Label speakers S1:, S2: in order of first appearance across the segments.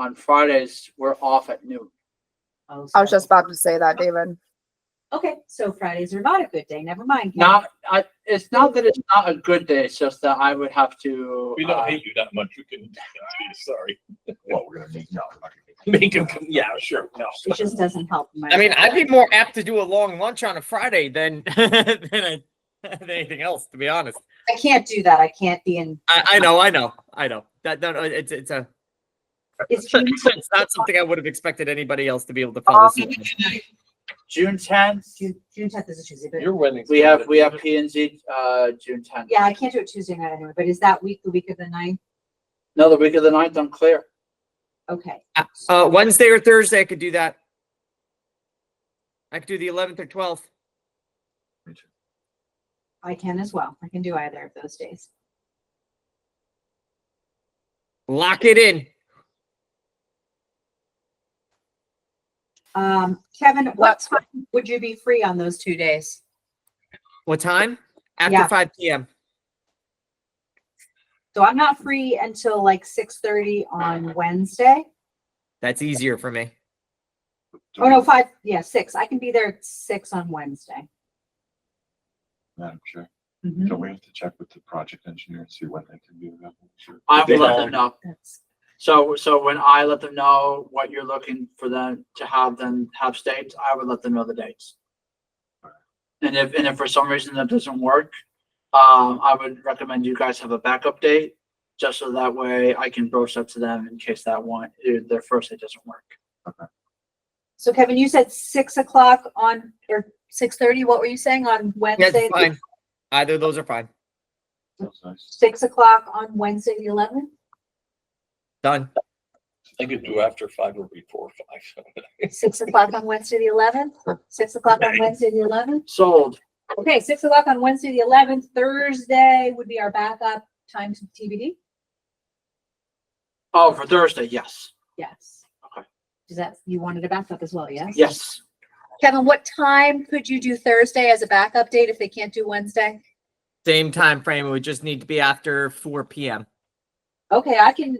S1: on Fridays, we're off at noon.
S2: I was just about to say that, David.
S3: Oh, Okay, so Fridays are not a good day. Never mind. Ken.
S1: Not, I, it's not that it's not a good day, it's just that I would have to.
S4: We
S1: uh,
S4: don't hate you that much. You can, sorry.
S5: Well, we're gonna make, no, we're not gonna make.
S4: Make him, come- yeah, sure, no.
S3: It just doesn't help. my-
S6: I mean, I'd be more apt to do a long lunch on a Friday than than, a, than anything else. To be honest,
S3: I can't do that. I can't be in.
S6: I, I know, I know, I know. That no, no, it's it's a
S3: It's
S6: it's not something I would have expected anybody else to be able to follow. suit with.
S1: June tenth,
S3: June, June tenth is a Tuesday, but
S4: Your wedding.
S1: we have, we have P and Z, uh, June tenth.
S3: yeah, I can't do it Tuesday night anyway. But is that week the week of the ninth?
S1: No, the week of the ninth, I'm clear.
S3: Okay.
S6: Uh, Wednesday or Thursday, I could do that. I could do the 11th or 12th.
S3: I can as well. I can do either of those days.
S6: Lock it in.
S3: Um, Kevin, what time would you be free on those two days?
S6: What time? After
S3: Yeah.
S6: 5 p.m.
S3: So I'm not free until like six thirty on Wednesday.
S6: That's easier for me.
S3: Oh no, five, yeah, six. I can be there at six on Wednesday.
S5: Madam Chair,
S2: Mm-hmm.
S3: Mhm.
S5: don't we have to check with the project engineer and see when they can be available?
S1: I
S5: They
S1: will let
S5: are.
S1: them know.
S3: That's-
S1: So, so when I let them know what you're looking for them to have them have dates, I would let them know the dates. And if, and if for some reason that doesn't work, um, I would recommend you guys have a backup date. Just so that way I can broach that to them in case that one, eh, their first date doesn't work.
S3: So Kevin, you said six o'clock on, or six thirty, what were you saying on
S6: That's
S3: Wednesday?
S6: fine. Either of those are fine.
S5: Sounds nice.
S3: Six o'clock on Wednesday, the eleventh?
S6: Done.
S4: I could do after five or before five.
S3: Six o'clock on Wednesday, the eleventh? Six o'clock on Wednesday, the eleventh?
S1: Sold.
S3: Okay, six o'clock on Wednesday, the eleventh, Thursday would be our backup time to TBD?
S1: Oh, for Thursday, yes,
S3: Yes.
S1: Okay.
S3: Is that, you wanted a backup as well, yes?
S1: yes.
S3: Kevin, what time could you do Thursday as a backup date if they can't do Wednesday?
S6: Same time frame. It would just need to be after 4 p.m.
S3: Okay, I can,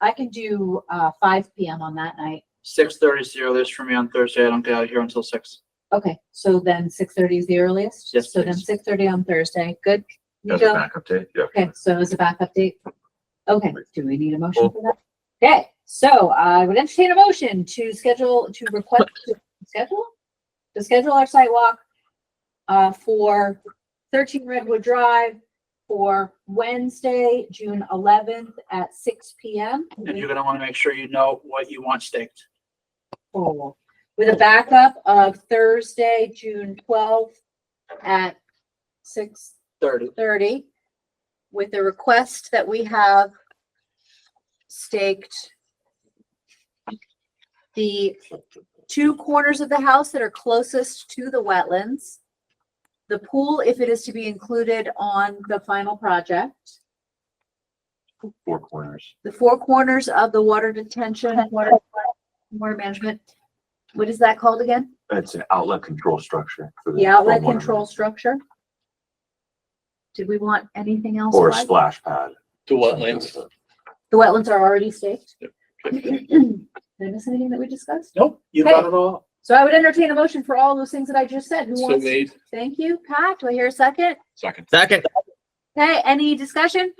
S3: I can do, uh, five PM on that night.
S1: Six thirty is the earliest for me on Thursday. I don't get out of here until six.
S3: Okay, so then six thirty is the earliest?
S1: Yes,
S3: So then
S1: please.
S3: six thirty on Thursday, good?
S5: As a
S3: Nico?
S5: backup date, yeah.
S3: Okay, so as a backup date, okay, do we need a motion for that? Okay, so I would entertain a motion to schedule, to request, to schedule? To schedule our site walk uh, for thirteen Redwood Drive for Wednesday, June eleventh at six P M.
S1: And you're gonna wanna make sure you know what you want staked.
S3: With a backup of Thursday, June twelfth at six
S1: Thirty.
S3: thirty with the request that we have staked the two corners of the house that are closest to the wetlands, the pool, if it is to be included on the final project,
S5: Four corners.
S3: the four corners of the water detention, water, water management. What is that called again?
S5: It's an outlet control structure. for
S3: The outlet
S5: stormwater
S3: control
S5: management.
S3: structure? Did we want anything else?
S5: Or a
S3: Mike?
S5: splash pad.
S4: To wetlands.
S3: The wetlands are already staked.
S4: Okay.
S3: Did I miss anything that we discussed?
S1: Nope, you got it all.
S3: So I would entertain a motion for all those things that I just said. Who
S4: So
S3: wants? to-
S4: made,
S3: Thank you, Pat. Do I hear a second?
S5: Second.
S6: Second.
S3: Okay, any discussion?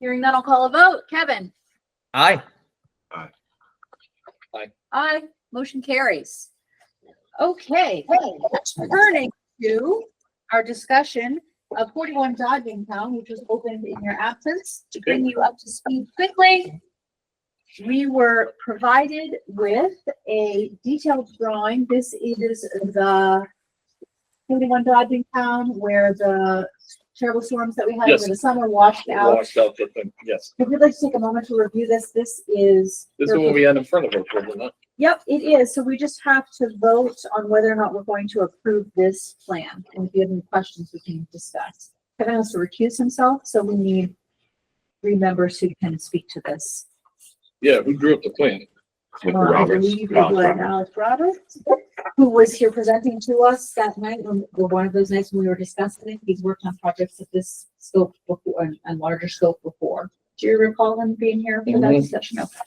S3: Hearing none, I'll call a vote. Kevin?
S6: Aye.
S3: Aye. Motion carries. Okay, turning to our discussion of forty-one Dodging Town, which was opened in your absence. To bring you up to speed quickly, we were provided with a detailed drawing. This is the forty-one Dodging Town where the terrible storms that we had over
S4: Yes.
S3: the summer washed out.
S4: washed out the thing, yes.
S3: If you'd like to take a moment to review this, this is.
S4: This is what we had in front of us, wasn't it?
S3: Yep, it is. So we just have to vote on whether or not we're going to approve this plan. And if you have any questions, we can discuss. Kevin has to recuse himself, so we need three members who can speak to this.
S4: Yeah, who drew up the plan?
S5: With
S3: Uh, I
S5: Roberts,
S3: believe it
S5: Alex
S3: was
S5: Roberts.
S3: Alex Roberts, who was here presenting to us that night, when- or one of those nights when we were discussing it. He's worked on projects of this scope before, and- and larger scope before. Do you recall him being here for that discussion? No.